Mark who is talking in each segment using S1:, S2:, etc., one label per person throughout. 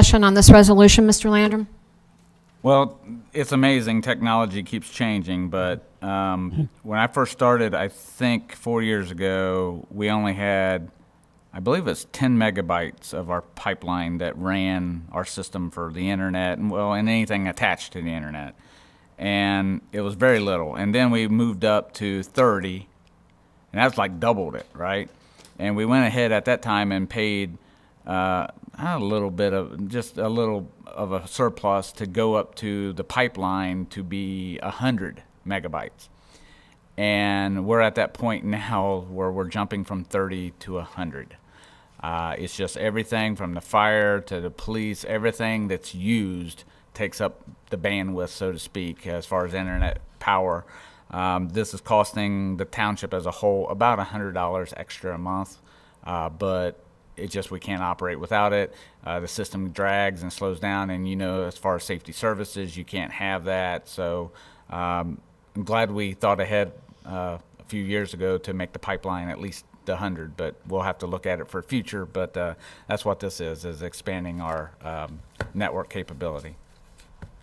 S1: Discussion on this resolution, Mr. Landrum?
S2: Well, it's amazing. Technology keeps changing, but um, when I first started, I think four years ago, we only had, I believe it's 10 megabytes of our pipeline that ran our system for the internet and, well, and anything attached to the internet. And it was very little. And then we moved up to 30 and that's like doubled it, right? And we went ahead at that time and paid uh, a little bit of just a little of a surplus to go up to the pipeline to be hundred megabytes, and we're at that point now where we're jumping from thirty to hundred. Uh, it's just everything from the fire to the police, everything that's used takes up the bandwidth, so to speak, as far as internet power. Um, this is costing the township as a whole about $100 extra a month, uh, but it just we can't operate without it. Uh, the system drags and slows down, and you know, as far as safety services, you can't have that. So um, I'm glad we thought ahead uh, a few years ago to make the pipeline at least the 100, but we'll have to look at it for future. But uh, that's what this is, is expanding our um, network capability.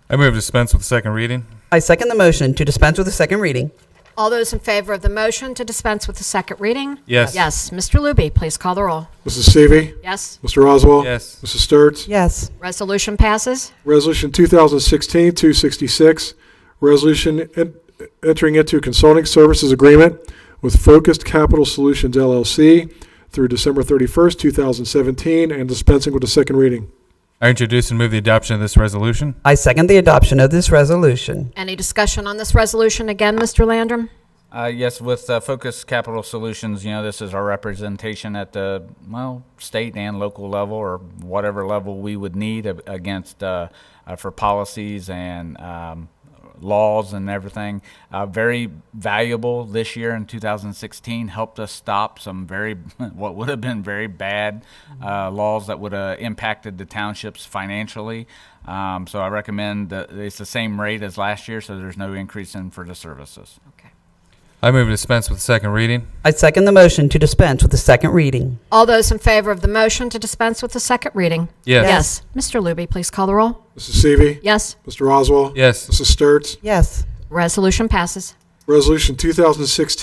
S3: I move to dispense with the second reading.
S4: I second the motion to dispense with the second reading.
S1: All those in favor of the motion to dispense with the second reading?
S3: Yes.
S1: Yes. Mr. Looby, please call the roll.
S5: Mrs. Seavey.
S1: Yes.
S5: Mr. Oswald.
S3: Yes.
S5: Mrs. Sturts.
S4: Yes.
S1: Resolution passes.
S5: Resolution 2016-266, resolution en- entering into consulting services agreement with Focused Capital Solutions LLC through December 31st, 2017, and dispensing with the second reading.
S3: I introduce and move the adoption of this resolution.
S4: I second the adoption of this resolution.
S1: Any discussion on this resolution again, Mr. Landrum?
S2: Uh, yes, with uh, Focus Capital Solutions, you know, this is our representation at the, well, state and local level or whatever level we would need a- against, uh, uh, for policies and um, laws and everything. Uh, very valuable this year in 2016, helped us stop some very, what would have been very bad uh, laws that would have impacted the townships financially. Um, so I recommend that it's the same rate as last year, so there's no increase in for the services.
S1: Okay.
S3: I move to dispense with the second reading.
S4: I second the motion to dispense with the second reading.
S1: All those in favor of the motion to dispense with the second reading?
S3: Yes.
S1: Mr. Looby, please call the roll.
S5: Mrs. Seavey.
S1: Yes.
S5: Mr. Oswald.
S3: Yes.
S5: Mrs. Sturts.
S4: Yes.
S1: Resolution passes.
S5: Resolution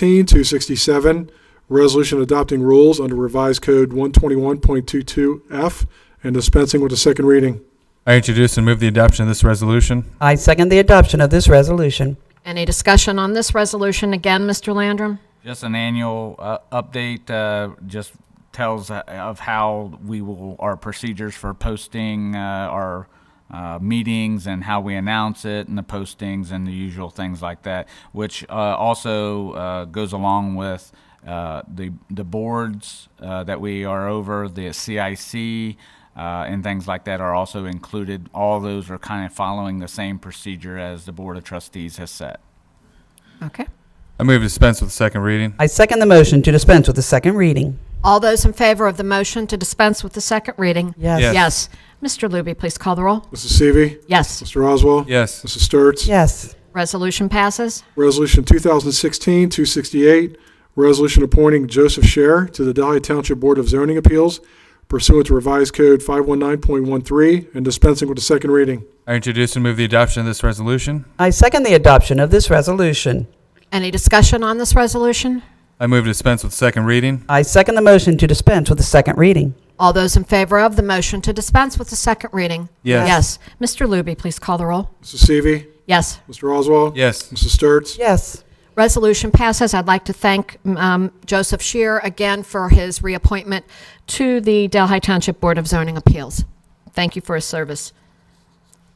S5: 2016-267, resolution adopting rules under revised code 121.22F and dispensing with the second reading.
S3: I introduce and move the adoption of this resolution.
S4: I second the adoption of this resolution.
S1: Any discussion on this resolution again, Mr. Landrum?
S2: Just an annual uh, update, uh, just tells uh, of how we will, our procedures for posting uh, our uh, meetings and how we announce it and the postings and the usual things like that, which uh, also uh, goes along with uh, the, the boards uh, that we are over, the CIC, uh, and things like that are also included. All those are kind of following the same procedure as the Board of Trustees has set.
S1: Okay.
S3: I move to dispense with the second reading.
S4: I second the motion to dispense with the second reading.
S1: All those in favor of the motion to dispense with the second reading?
S3: Yes.
S1: Yes. Mr. Looby, please call the roll.
S5: Mrs. Seavey.
S1: Yes.
S5: Mr. Oswald.
S3: Yes.
S5: Mrs. Sturts.
S4: Yes.
S1: Resolution passes.
S5: Resolution 2016-268, resolution appointing Joseph Scher to the Delhi Township Board of Zoning Appeals pursuant to revised code 519.13 and dispensing with the second reading.
S3: I introduce and move the adoption of this resolution.
S4: I second the adoption of this resolution.
S1: Any discussion on this resolution?
S3: I move to dispense with the second reading.
S4: I second the motion to dispense with the second reading.
S1: All those in favor of the motion to dispense with the second reading?
S3: Yes.
S1: Yes. Mr. Looby, please call the roll.
S5: Mrs. Seavey.
S1: Yes.
S5: Mr. Oswald.
S3: Yes.
S5: Mrs. Sturts.
S4: Yes.
S1: Resolution passes. I'd like to thank um, Joseph Shear again for his reappointment to the Delhi Township Board of Zoning Appeals. Thank you for his service.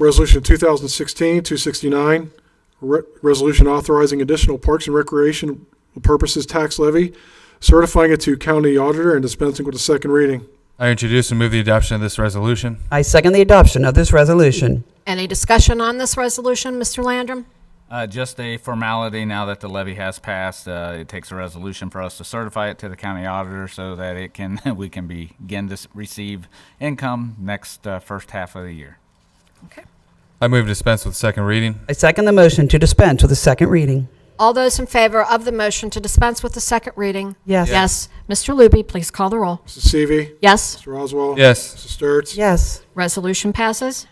S5: Resolution 2016-269, re- resolution authorizing additional parks and recreation purposes tax levy, certifying it to county auditor and dispensing with the second reading.
S3: I introduce and move the adoption of this resolution.
S4: I second the adoption of this resolution.
S1: Any discussion on this resolution, Mr. Landrum?
S2: Uh, just a formality now that the levy has passed. Uh, it takes a resolution for us to certify it to the county auditor so that it can we can begin to s- receive income next uh, first half of the year.
S1: Okay.
S3: I move to dispense with the second reading.
S4: I second the motion to dispense with the second reading.
S1: All those in favor of the motion to dispense with the second reading?
S4: Yes.
S1: Yes. Mr. Luby, please call the roll.
S5: Mrs. Seavey.
S1: Yes,
S5: Mr. Oswald.
S3: Yes.
S5: Mrs. Sturts.
S4: Yes.
S1: resolution passes.